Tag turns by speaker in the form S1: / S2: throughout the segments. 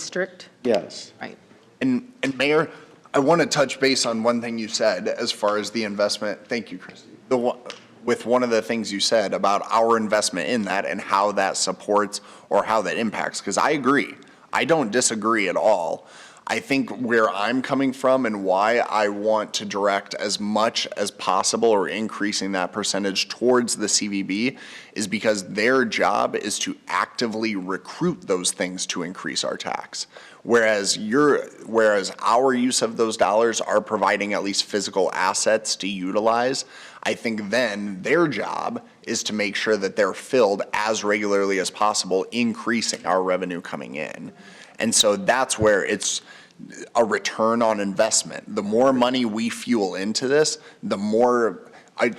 S1: district,
S2: Yes.
S1: right?
S3: And, and Mayor, I want to touch base on one thing you said as far as the investment, thank you, Christie. The, one- with one of the things you said about our investment in that and how that supports or how that impacts, because I agree. I don't disagree at all. I think where I'm coming from and why I want to direct as much as possible or increasing that percentage towards the CVB is because their job is to actively recruit those things to increase our tax. Whereas your, whereas our use of those dollars are providing at least physical assets to utilize, I think then their job is to make sure that they're filled as regularly as possible, increasing our revenue coming in. And so that's where it's a return on investment. The more money we fuel into this, the more I,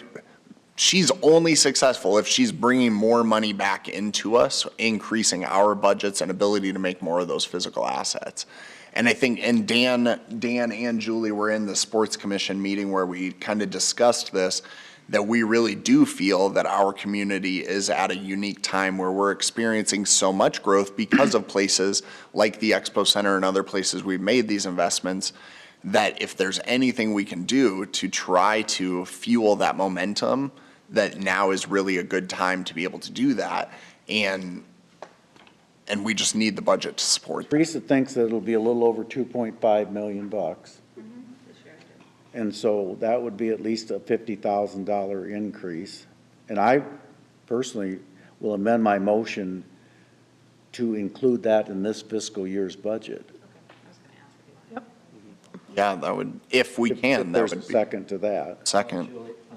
S3: she's only successful if she's bringing more money back into us, increasing our budgets and ability to make more of those physical assets. And I think, and Dan, Dan and Julie were in the sports commission meeting where we kind of discussed this, that we really do feel that our community is at a unique time where we're experiencing so much growth because of places like the Expo Center and other places we've made these investments that if there's anything we can do to try to fuel that momentum, that now is really a good time to be able to do that. And, and we just need the budget to support. that.
S2: Teresa thinks that it'll be a little over two point five million bucks. And so that would be at least a fifty thousand dollar increase. And I personally will amend my motion to include that in this fiscal year's budget.
S3: Yeah, that would, if we
S2: If-
S3: can,
S2: If
S3: that
S2: there's a
S3: would be
S2: second to that,
S3: second.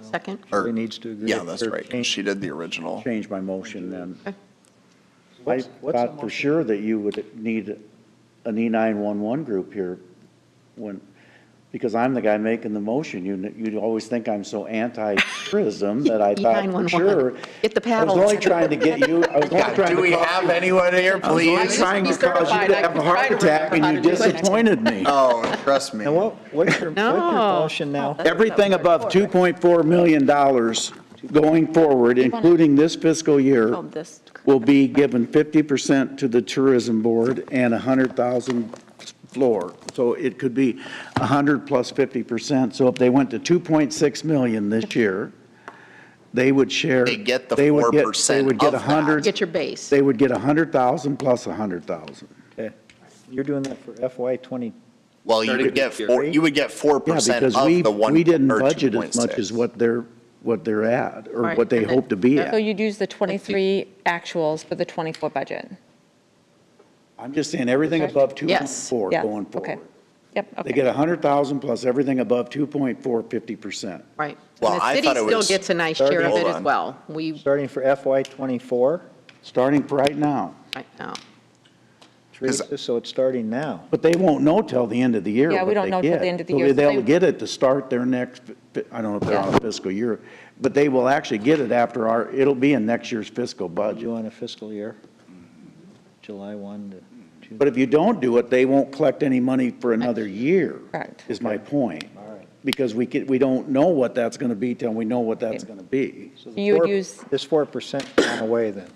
S1: Second,
S3: Or-
S4: Julie needs to agree.
S3: Yeah, that's
S4: Or
S3: right. 'cause
S4: change-
S3: She did the original.
S2: change my motion then.
S1: Okay.
S2: I
S4: What's- what's the
S2: thought for
S4: motion?
S2: sure that you would need an E nine-one-one group here when, because I'm the guy making the motion. You, you always think I'm so anti-tourism that I thought for
S1: E911.
S2: sure.
S1: Get the
S2: I
S1: paddles.
S2: was only trying to get you, I was only
S3: Yeah,
S2: trying
S3: do
S2: to
S3: we
S2: cause
S3: have anyone here,
S2: I was
S3: please?
S2: trying to cause you to have a heart attack and you disappointed me.
S3: Oh, trust me.
S4: And what, what's your, what's your
S1: No.
S4: motion now?
S2: Everything above two point four million dollars going forward, including this fiscal year,
S1: oh, this,
S2: will be given fifty percent to the tourism board and a hundred thousand floor. So it could be a hundred plus fifty percent. So if they went to two point six million this year, they would share.
S3: They get the
S2: they would get-
S3: 4%
S2: They would get
S3: of
S2: a
S3: that.
S2: hundred,
S1: get your base.
S2: they would get a hundred thousand plus a hundred thousand.
S4: Okay. You're doing that for FY '20.
S3: Well, you would get four, you would get four
S2: Yeah,
S3: percent of
S2: because we,
S3: the one.
S2: we didn't
S3: or
S2: budget as much
S3: 2.6.
S2: as what they're, what they're at, or
S1: Right,
S2: what they
S1: and
S2: hope to be
S1: then-
S5: So
S2: at.
S5: you'd use the 23 actuals for the 24 budget?
S2: I'm just saying, everything above two point
S1: Yes,
S2: four
S5: Yeah,
S2: going
S5: okay.
S2: forward.
S5: Yep, okay.
S2: They get a hundred thousand plus everything above two point four fifty percent.
S1: Right.
S3: Well,
S1: And the
S3: I
S1: city
S3: thought it
S1: still
S3: was-
S1: gets a nice share of
S3: Hold
S1: it as
S3: on.
S1: well. We,
S4: starting for FY '24,
S2: starting for right now.
S1: right now,
S4: Teresa, so it's starting now.
S2: But they won't know till the end of the year.
S5: Yeah, we
S2: what
S5: don't
S2: they
S5: know till
S2: get.
S5: the end of the
S2: So
S5: year, so
S2: They'll
S5: they-
S2: get it to start their next, fi- I don't know if they're on a fiscal year, but they will actually get it after our, it'll be in next year's fiscal budget.
S4: You on a fiscal year, July 1 to June.
S2: But if you don't do it, they won't collect any money for another year.
S5: Correct.
S2: Is my point.
S4: All right.
S2: Because we can, we don't know what that's going to be till we know what that's going to be.
S4: So the
S5: You would
S4: four-
S5: use-
S4: This 4% gone away then.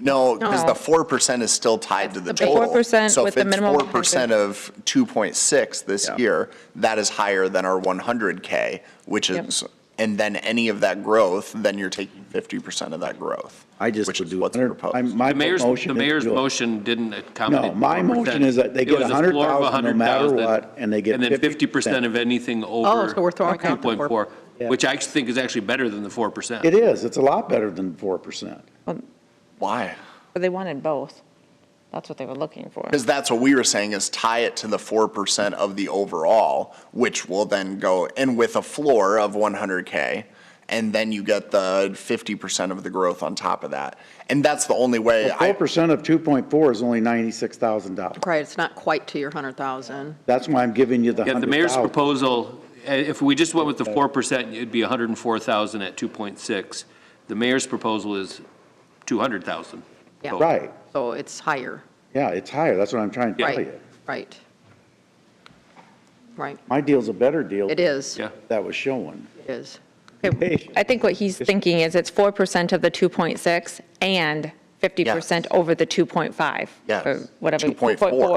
S3: No, because
S5: No.
S3: the four percent is still tied to the
S1: That's the base.
S3: total.
S5: 4%
S3: So if
S5: with the
S3: it's
S5: minimum
S3: four percent of two point six this
S2: Yeah.
S3: year, that is higher than our one hundred K, which
S5: Yep.
S3: is, and then any of that growth, then you're taking fifty percent of that growth.
S2: I just
S3: which
S2: would
S3: is
S2: do.
S3: what's
S2: 100
S3: proposed.
S2: I'm- My
S6: The mayor's,
S2: motion
S6: the
S2: is to
S6: mayor's
S2: do it.
S6: motion didn't accommodate.
S2: No, my
S6: 4%.
S2: motion is that they
S6: It
S2: get
S6: was a floor of
S2: 100,000 no matter
S6: 100,000,
S2: what, and they get
S6: And then
S2: 50%.
S6: 50% of anything over.
S1: Oh, so we're throwing out the
S6: 2.4,
S2: Yeah.
S6: Which I think is actually better than the 4%.
S2: It is. It's a lot better than 4%.
S3: Why?
S5: But they wanted both. That's what they were looking for.
S3: Because that's what we were saying is tie it to the four percent of the overall, which will then go and with a floor of one hundred K. And then you get the fifty percent of the growth on top of that. And that's the only way I.
S2: Four percent of two point four is only ninety-six thousand dollars.
S1: right, it's not quite to your 100,000.
S2: That's why I'm giving you the
S6: Yeah, the
S2: hundred
S6: mayor's
S2: thousand.
S6: proposal, eh, if we just went with the 4%, it'd be 104,000 at 2.6. The mayor's proposal is 200,000.
S1: Yeah.
S6: total.
S2: Right,
S1: So it's higher,
S2: yeah, it's higher, that's what I'm trying to tell
S1: Right.
S2: you.
S1: right? Right,
S2: My deal's a better deal.
S1: it is,
S6: Yeah.
S1: it
S2: That was showing.
S1: is.
S2: Hey,
S5: I think what he's thinking is it's 4% of the 2.6 and 50% over the 2.5.
S3: Yes.
S5: Or whatever.
S3: 2.4.